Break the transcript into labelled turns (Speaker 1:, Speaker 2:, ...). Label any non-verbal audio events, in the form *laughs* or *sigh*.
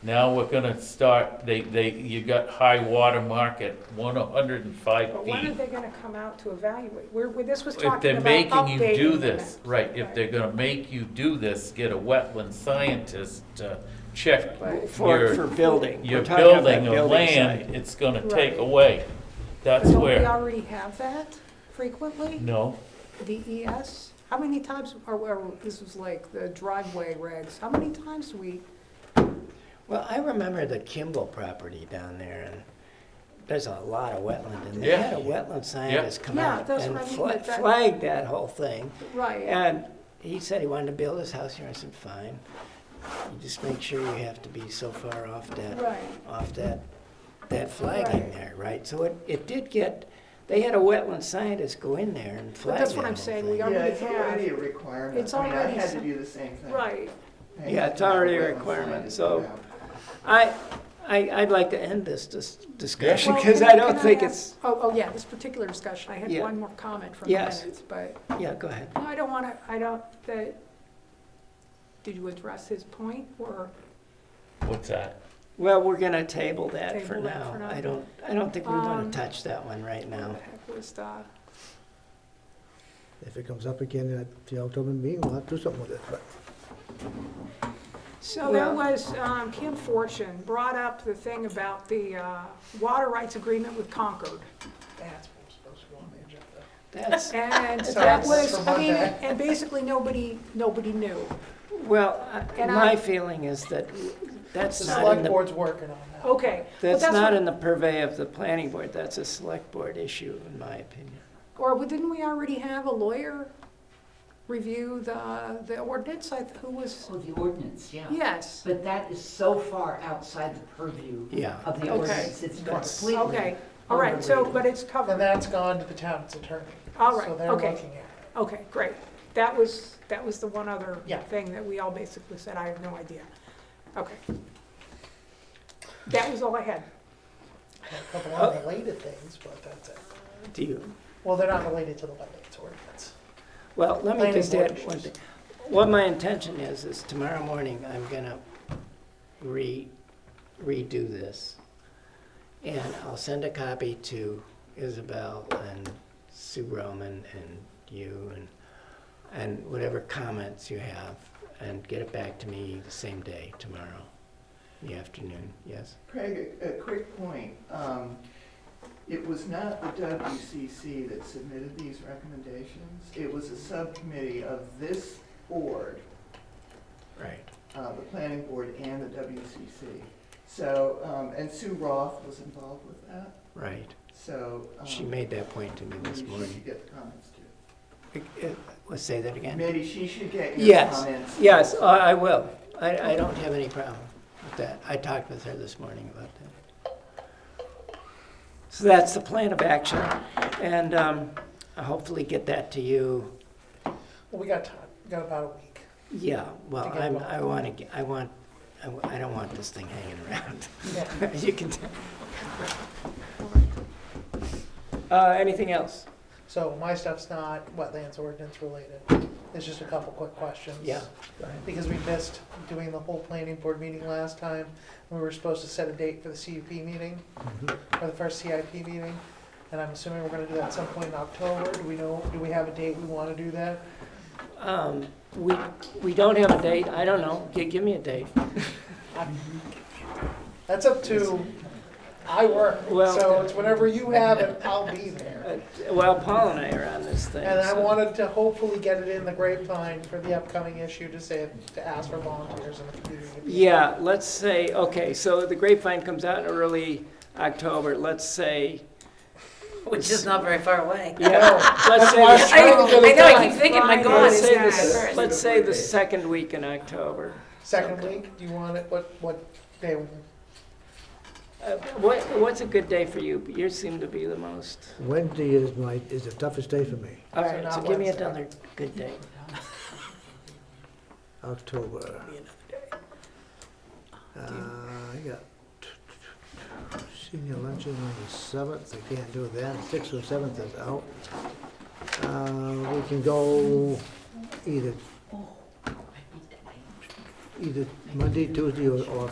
Speaker 1: Now we're gonna start, they, they, you got high water mark at one hundred and five
Speaker 2: But when are
Speaker 1: feet.
Speaker 2: they gonna come out to evaluate? We're, we- this was
Speaker 1: If
Speaker 2: talking
Speaker 1: they're
Speaker 2: about
Speaker 1: making you do
Speaker 2: updating the
Speaker 1: this,
Speaker 2: map.
Speaker 1: right, if they're gonna make you do this, get a wetland scientist to check
Speaker 3: For, for
Speaker 1: your,
Speaker 3: building. We're
Speaker 1: your
Speaker 3: talking about
Speaker 1: building or
Speaker 3: site.
Speaker 1: land, it's gonna take
Speaker 2: Right.
Speaker 1: away.
Speaker 2: But
Speaker 1: That's
Speaker 2: Don't we
Speaker 1: where,
Speaker 2: already have that frequently?
Speaker 1: no,
Speaker 2: DES? How many times, or, or this was like the driveway regs, how many times do we,
Speaker 3: Well, I remember the Kimball property down there, and there's a lot of wetland, and they
Speaker 1: Yeah.
Speaker 3: had a wetland scientist come
Speaker 2: Yeah,
Speaker 3: out
Speaker 2: that's
Speaker 3: and
Speaker 2: what I mean,
Speaker 3: fla-
Speaker 2: but that-
Speaker 3: flagged that whole thing.
Speaker 2: right,
Speaker 3: And he said he wanted to build his house here. I said, fine. You just make sure you have to be so far off that,
Speaker 2: right.
Speaker 3: off that, that flagging
Speaker 2: Right.
Speaker 3: there, right? So it, it did get, they had a wetland scientist go in there and
Speaker 2: But
Speaker 3: flag that
Speaker 2: that's what I'm
Speaker 3: whole
Speaker 2: saying,
Speaker 3: thing.
Speaker 2: we
Speaker 4: Yeah,
Speaker 2: already
Speaker 4: it's already
Speaker 2: have,
Speaker 4: a requirement.
Speaker 2: It's
Speaker 4: I mean, I
Speaker 2: already
Speaker 4: had to
Speaker 2: some-
Speaker 4: do the same thing.
Speaker 2: right.
Speaker 4: I
Speaker 3: Yeah,
Speaker 4: had
Speaker 3: it's
Speaker 4: to do
Speaker 3: already a
Speaker 4: wetland
Speaker 3: requirement,
Speaker 4: science,
Speaker 3: so-
Speaker 4: yeah.
Speaker 3: I, I, I'd like to end this dis- discussion,
Speaker 2: Well,
Speaker 3: because
Speaker 2: can-
Speaker 3: I don't
Speaker 2: can
Speaker 3: think it's,
Speaker 2: ask- Oh, oh, yeah, this particular discussion, I had
Speaker 3: Yeah.
Speaker 2: one more comment from the
Speaker 3: Yes.
Speaker 2: minutes, but,
Speaker 3: yeah, go ahead.
Speaker 2: no, I don't want to, I don't, the, did you address his point, or?
Speaker 1: what's that?
Speaker 3: Well, we're gonna table that for
Speaker 2: Table that for
Speaker 3: now.
Speaker 2: now.
Speaker 3: I don't, I don't think we're gonna
Speaker 2: Um,
Speaker 3: touch that one right
Speaker 2: What
Speaker 3: now.
Speaker 2: the heck was the,
Speaker 5: If it comes up again at the October meeting, we'll have to do something with it, but.
Speaker 2: so there
Speaker 3: Well-
Speaker 2: was, um, Kim Fortune brought up the thing about the, uh, water rights agreement with Concord.
Speaker 3: That's,
Speaker 2: And
Speaker 3: That's
Speaker 2: that
Speaker 3: for
Speaker 2: was, I mean,
Speaker 4: Monday.
Speaker 2: and basically, nobody, nobody knew.
Speaker 3: well, I-
Speaker 2: And I-
Speaker 3: my feeling is that that's
Speaker 6: The
Speaker 3: not in
Speaker 6: select
Speaker 3: the,
Speaker 6: board's working on that.
Speaker 2: Okay. but
Speaker 3: that's not
Speaker 2: what-
Speaker 3: in the purvey of the planning board. That's a select board issue, in my opinion.
Speaker 2: Or we- didn't we already have a lawyer review the, the ordinance, I, th- who was,
Speaker 7: Oh, the ordinance, yeah.
Speaker 2: yes,
Speaker 7: But that is so far outside the purview
Speaker 3: Yeah.
Speaker 7: of the
Speaker 2: Okay.
Speaker 7: ordinance, it's
Speaker 3: That's-
Speaker 7: completely.
Speaker 2: okay, all right, so, but it's
Speaker 6: And
Speaker 2: covered,
Speaker 6: that's gone to the town's attorney.
Speaker 2: All right,
Speaker 6: So they're
Speaker 2: okay.
Speaker 6: looking at
Speaker 2: okay, great. That was, that was the one other
Speaker 6: Yeah.
Speaker 2: thing that we all basically said, I have no idea, okay. That was all I had,
Speaker 6: a couple unrelated things, but that's it.
Speaker 3: Do you,
Speaker 6: Well, they're not related to the wetlands ordinance.
Speaker 3: well, let me
Speaker 6: Planning
Speaker 3: just
Speaker 6: board
Speaker 3: add one
Speaker 6: issues.
Speaker 3: thing. What my intention is, is tomorrow morning, I'm gonna re, redo this. And I'll send a copy to Isabel and Sue Roman and you and, and whatever comments you have, and get it back to me the same day tomorrow, in the afternoon, yes?
Speaker 4: Craig, a, a quick point. Um, it was not the WCC that submitted these recommendations. It was a subcommittee of this board,
Speaker 3: Right.
Speaker 4: uh, the planning board and the WCC. So, um, and Sue Roth was involved with that,
Speaker 3: Right.
Speaker 4: so. um,
Speaker 3: She made that point to me
Speaker 4: maybe
Speaker 3: this
Speaker 4: she
Speaker 3: morning.
Speaker 4: should get the comments too.
Speaker 3: Uh, uh, Let's say that again.
Speaker 4: Maybe she should get your
Speaker 3: Yes,
Speaker 4: comments.
Speaker 3: yes, I I will. I, I don't have any problem with that. I talked with her this morning about that. So that's the plan of action, and um, I'll hopefully get that to you.
Speaker 6: Well, we got time, we got about a week.
Speaker 3: Yeah, well,
Speaker 6: To get
Speaker 3: I'm,
Speaker 6: what?
Speaker 3: I want to, I want, I w- I don't want this thing hanging around.
Speaker 6: Yeah.
Speaker 3: *laughs* You can tell. Uh, Anything else?
Speaker 6: So my stuff's not wetlands ordinance related. It's just a couple quick questions.
Speaker 3: Yeah.
Speaker 6: Because we missed doing the whole planning board meeting last time. We were supposed to set a date for the CUP meeting, for the first CIP meeting. And I'm assuming we're gonna do that at some point in October. Do we know, do we have a date we wanna do that?
Speaker 3: Um, We, we don't have a date. I don't know. Gi- Give me a date.
Speaker 6: That's up to, I work,
Speaker 3: Well-
Speaker 6: so it's whenever you have it, I'll be there.
Speaker 3: Uh, Well, Paul and I are on this thing.
Speaker 6: And I
Speaker 3: so-
Speaker 6: wanted to hopefully get it in the grapevine for the upcoming issue to say, to ask for volunteers in the community. to be-
Speaker 3: Yeah, let's say, okay, so the grapevine comes out in early October, let's say,
Speaker 8: Which is not very far
Speaker 2: *laughs*
Speaker 8: away.
Speaker 6: *laughs*
Speaker 3: yeah, let's
Speaker 6: why I was
Speaker 3: say,
Speaker 6: trying to get
Speaker 8: I
Speaker 6: it
Speaker 8: know, I
Speaker 6: done.
Speaker 8: keep thinking, my
Speaker 2: Friday.
Speaker 8: God,
Speaker 3: let's
Speaker 8: is
Speaker 3: say
Speaker 8: that
Speaker 3: the,
Speaker 8: first?
Speaker 3: let's say the second week in October.
Speaker 6: Second week, do you want it, what, what day?
Speaker 3: Uh, What, what's a good day for you? You seem to be the most,
Speaker 5: Wednesday is my, is the toughest day for me,
Speaker 3: all right, so
Speaker 6: not
Speaker 3: give me
Speaker 6: Wednesday.
Speaker 3: another good day.
Speaker 5: October. Uh, I got senior luncheon on the seventh, I can't do that, sixth or seventh is out. Uh, we can go either, either Monday, Tuesday, or, or